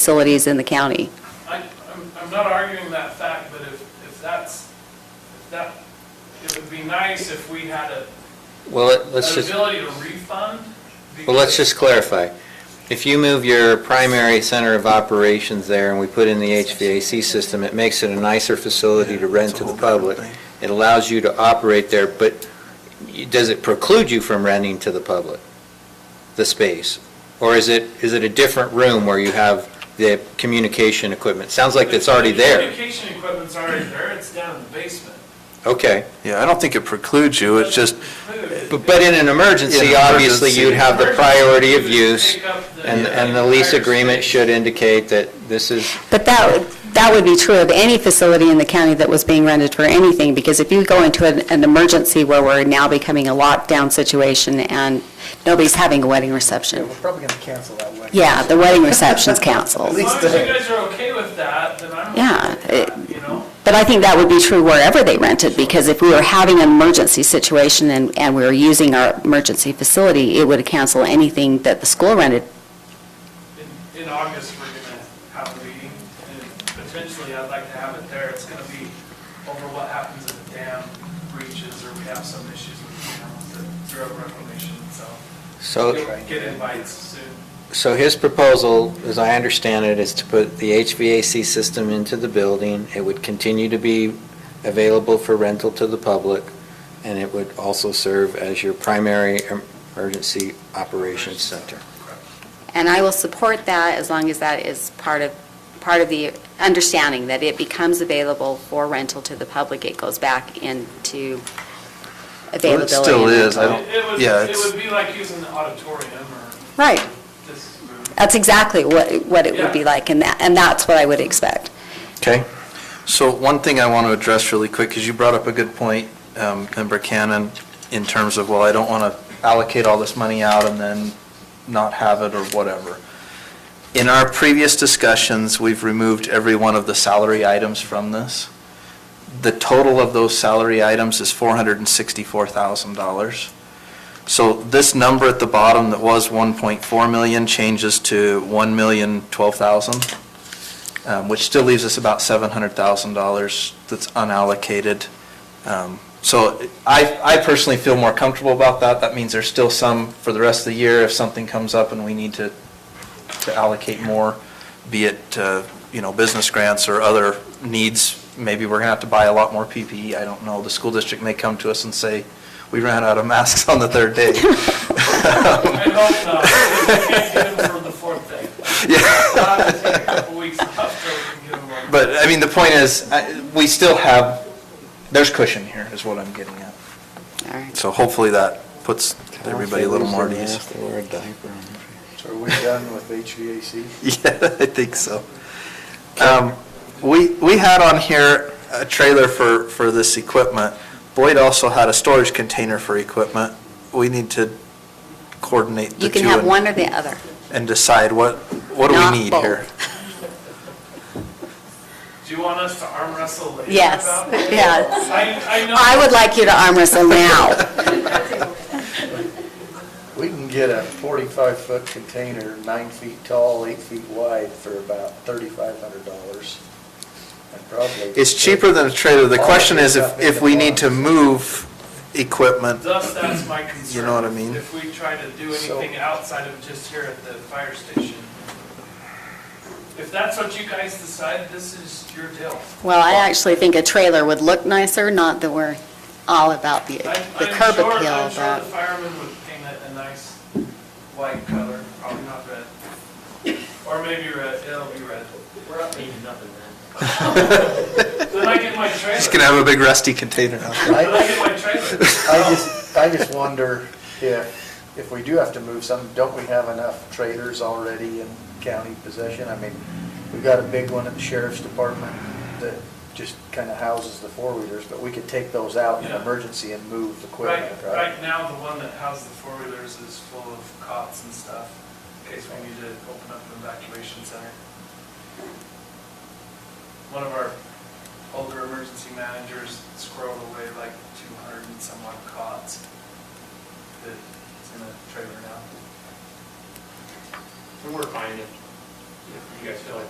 facilities in the county. I, I'm, I'm not arguing that fact, but if, if that's, if that, it would be nice if we had a, Well, let- let's an just, ability to refund. well, let's just clarify. If you move your primary center of operations there and we put in the HVAC system, it makes it a nicer facility to rent to the public. It allows you to operate there, but you- does it preclude you from renting to the public, the space? Or is it, is it a different room where you have the communication equipment? Sounds like it's already The there. Communication equipment's already there, it's down in the basement. Okay. Yeah, I don't think it precludes you, it's just, Move. But but in an In emergency, an obviously, emergency. you'd have the priority of use Take up the- uh, and, and the lease agreement should indicate that this is But that, that would be true of any facility in the county that was being rented for anything, because if you go into an, an emergency where we're now becoming a lockdown situation and nobody's having a wedding Yeah, reception, we're probably gonna cancel that one. yeah, the wedding reception's As canceled. long as you guys are okay with that, then I'm. okay Yeah, with it- that, You know? But I think that would be true wherever they rented, because if we were having an emergency situation and, and we were using our emergency facility, it would cancel anything that the school rented. In, in August, we're gonna have a meeting, and potentially I'd like to have it there. It's gonna be over what happens if the dam breaches or we have some issues with dams that- throughout reclamation, so. So, You'll get invites soon. so his proposal, as I understand it, is to put the HVAC system into the building. It would continue to be available for rental to the public, and it would also serve as your primary em- emergency operations center. And I will support that as long as that is part of, part of the understanding that it becomes available for rental to the public. It goes back into well, it availability. still and is, I rental. don't, It would, yeah, it it's, would be like using the auditorium or Right. this room. That's exactly what, what it would be Yeah. like, and that, and that's what I would expect. Okay? so one thing I want to address really quick, because you brought up a good point, um, Member Cannon, in terms of, well, I don't want to allocate all this money out and then not have it or whatever. In our previous discussions, we've removed every one of the salary items from this. The total of those salary items is $464,000. So this number at the bottom that was 1.4 million changes to 1,012,000, um, which still leaves us about $700,000 that's unallocated. Um, So I, I personally feel more comfortable about that. That means there's still some for the rest of the year if something comes up and we need to, to allocate more, be it, uh, you know, business grants or other needs. Maybe we're going to have to buy a lot more PPE, I don't know. The school district may come to us and say, we ran out of masks on the third day. I hope not. We can't get them for the fourth day. I'll have to take a couple weeks off so we can get them. But, I mean, the point is, I- we still have, there's cushion here, is what I'm getting at. All right. So hopefully that puts everybody a little more at ease. So are we done with HVAC? Yeah, I think so. Um, We, we had on here a trailer for, for this equipment. Boyd also had a storage container for equipment. We need to coordinate the two. You can have and- one or the other. And decide what, what do Not we need both. here? Do you want us to arm wrestle later Yes, about it? yeah. I, I know. I would like you to arm wrestle now. We can get a forty-five foot container, nine feet tall, eight feet wide for about thirty-five hundred dollars. And probably. It's cheaper than a trailer. The question is if, if we need to move equipment Thus, that's my concern. know what I mean? If we try to do So- anything outside of just here at the fire station. If that's what you guys decide, this is your deal. Well, I actually think a trailer would look nicer, not that we're all about the, I'm- the I'm curb sure- appeal, I'm sure the but. firemen would paint it a nice white color, probably not red. Or maybe red, it'll be red. We're not painting nothing, man. Then I get my trailer. Just gonna have a big rusty container out there. Then I I, get my trailer. I just, I just wonder if, if we do have to move some, don't we have enough trailers already in county possession? I mean, we've got a big one at the sheriff's department that just kind of houses the four-wheelers, but we could take those out in an Yeah. emergency and move Right, equipment, right? right now, the one that housed the four-wheelers is full of cots and stuff, in case we need to open up an evacuation center. One of our older emergency managers squirreled away like two hundred and some odd cots that's in a trailer now. And we're finding if you guys feel like